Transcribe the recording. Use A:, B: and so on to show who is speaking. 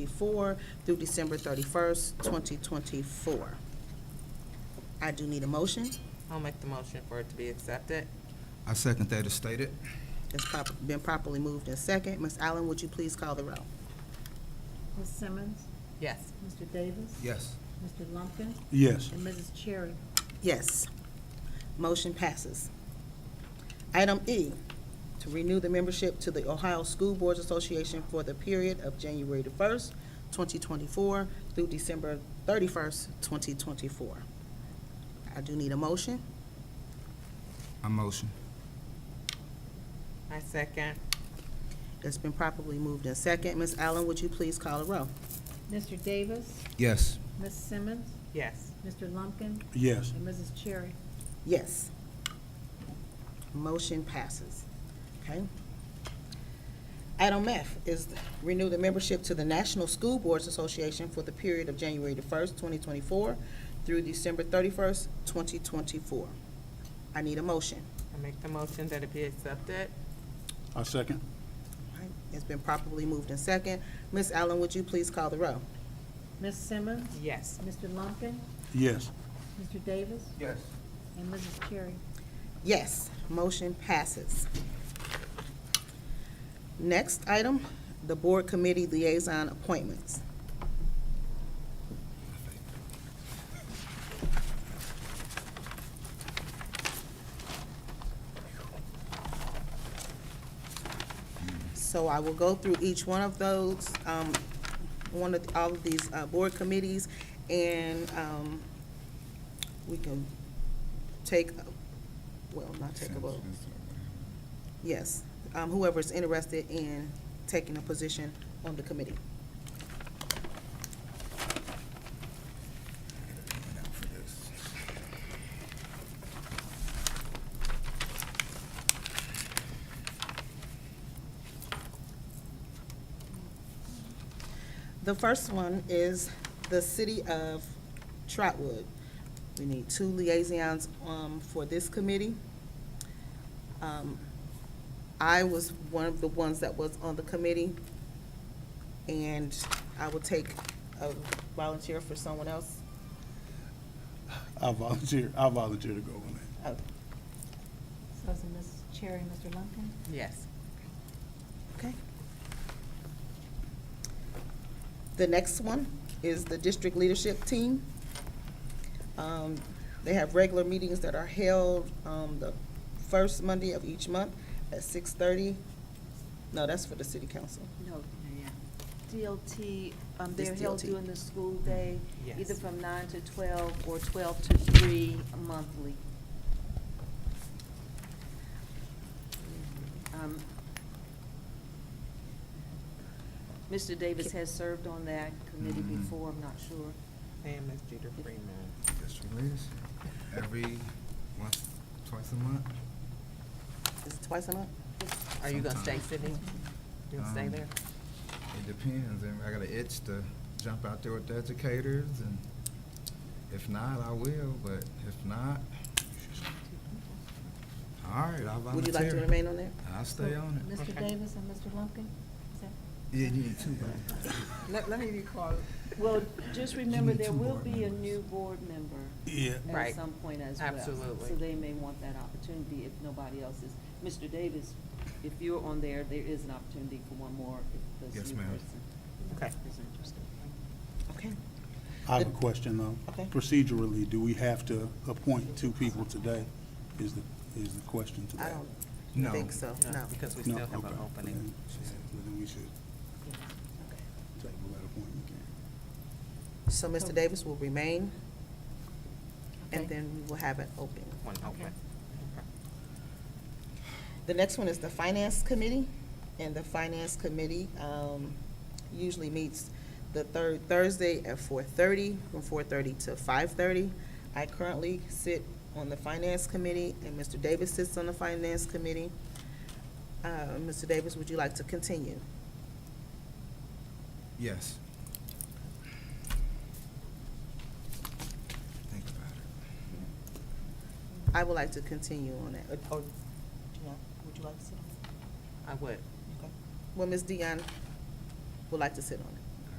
A: twenty-four through December thirty-first, twenty twenty-four. I do need a motion.
B: I'll make the motion for it to be accepted.
C: I second that as stated.
A: It's prop- been properly moved in second. Ms. Allen, would you please call the roll?
D: Ms. Simmons,
B: Yes.
D: Mr. Davis,
C: Yes.
D: Mr. Lumpkin,
E: Yes.
D: and Mrs. Cherry.
A: Yes. Motion passes. Item E, to renew the membership to the Ohio School Boards Association for the period of January the first, twenty twenty-four through December thirty-first, twenty twenty-four. I do need a motion.
C: I motion.
B: I second.
A: It's been properly moved in second. Ms. Allen, would you please call the roll?
D: Mr. Davis,
C: Yes.
D: Ms. Simmons,
B: Yes.
D: Mr. Lumpkin,
E: Yes.
D: and Mrs. Cherry.
A: Yes. Motion passes. Okay. Item F is renew the membership to the National School Boards Association for the period of January the first, twenty twenty-four through December thirty-first, twenty twenty-four. I need a motion.
B: I make the motion that it be accepted.
E: I second.
A: All right, It's been properly moved in second. Ms. Allen, would you please call the row?
D: Ms. Simmons,
B: Yes.
D: Mr. Lumpkin,
E: Yes.
D: Mr. Davis,
C: Yes.
D: and Mrs. Cherry.
A: Yes, motion passes. Next item, the Board Committee Liaison Appointments. So I will go through each one of those, um, one of, all of these, uh, board committees, and, um, we can take, well, not take a vote. Yes, um, whoever's interested in taking a position on the committee. The first one is the city of Trotwood. We need two liaisons, um, for this committee. Um, I was one of the ones that was on the committee, and I will take a volunteer for someone else.
E: I volunteer, I volunteer to go on that.
A: Oh,
D: So is it Mrs. Cherry, Mr. Lumpkin?
B: Yes.
A: Okay. The next one is the district leadership team. Um, They have regular meetings that are held um, the first Monday of each month at six-thirty. No, that's for the city council.
F: No, DLT, um,
A: This
F: they're held
A: DLT.
F: during the school day,
B: Yes.
F: either from nine to twelve or twelve to three monthly. Um, Mr. Davis has served on that committee
C: Mhm.
F: before, I'm not sure.
B: And Ms. Jeter Freeman.
C: Yes, she is. Every once, twice a month?
A: Is it twice a month?
B: Are you gonna stay,
C: Sometimes.
B: Sydney? You'll stay
C: Um,
B: there?
C: It depends. And I got an itch to jump out there with the educators and if not, I will, but if not, all right, I'll volunteer.
A: Would you like to remain on there?
C: I'll stay on it.
D: Mr.
B: Okay.
D: Davis and Mr. Lumpkin? Is that-
C: Yeah, you need two, buddy.
B: Let, let me call.
F: Well, just remember,
C: need
F: there
C: two
F: will
C: board
F: be a
C: members.
F: new board member.
E: Yeah.
B: Right.
F: at some point as well.
B: Absolutely.
F: So they may want that opportunity if nobody else is. Mr. Davis, if you're on there, there is an opportunity for one more if
C: Yes,
F: this new
C: ma'am.
F: person
B: Okay.
F: is interested.
C: Uh,
A: Okay.
E: I have a question though.
A: Okay.
E: Procedurally, do we have to appoint two people today? Is the, is the question today?
A: I don't
C: No.
A: think so, no.
B: Because we
E: No,
B: still have
E: okay.
B: an opening.
E: Then then we should table that appointment. then.
A: So Mr. Davis will remain, and
D: Okay.
A: then we will have it open.
B: One open.
A: The next one is the Finance Committee, and the Finance Committee um, usually meets the third Thursday at four-thirty, from four-thirty to five-thirty. I currently sit on the Finance Committee, and Mr. Davis sits on the Finance Committee. Uh, Mr. Davis, would you like to continue?
C: Yes. Think about it.
A: I would like to continue on that. Or- or- yeah, Would you like to sit on it?
B: I would.
A: Okay. Well, Ms. Dion would like to sit on it.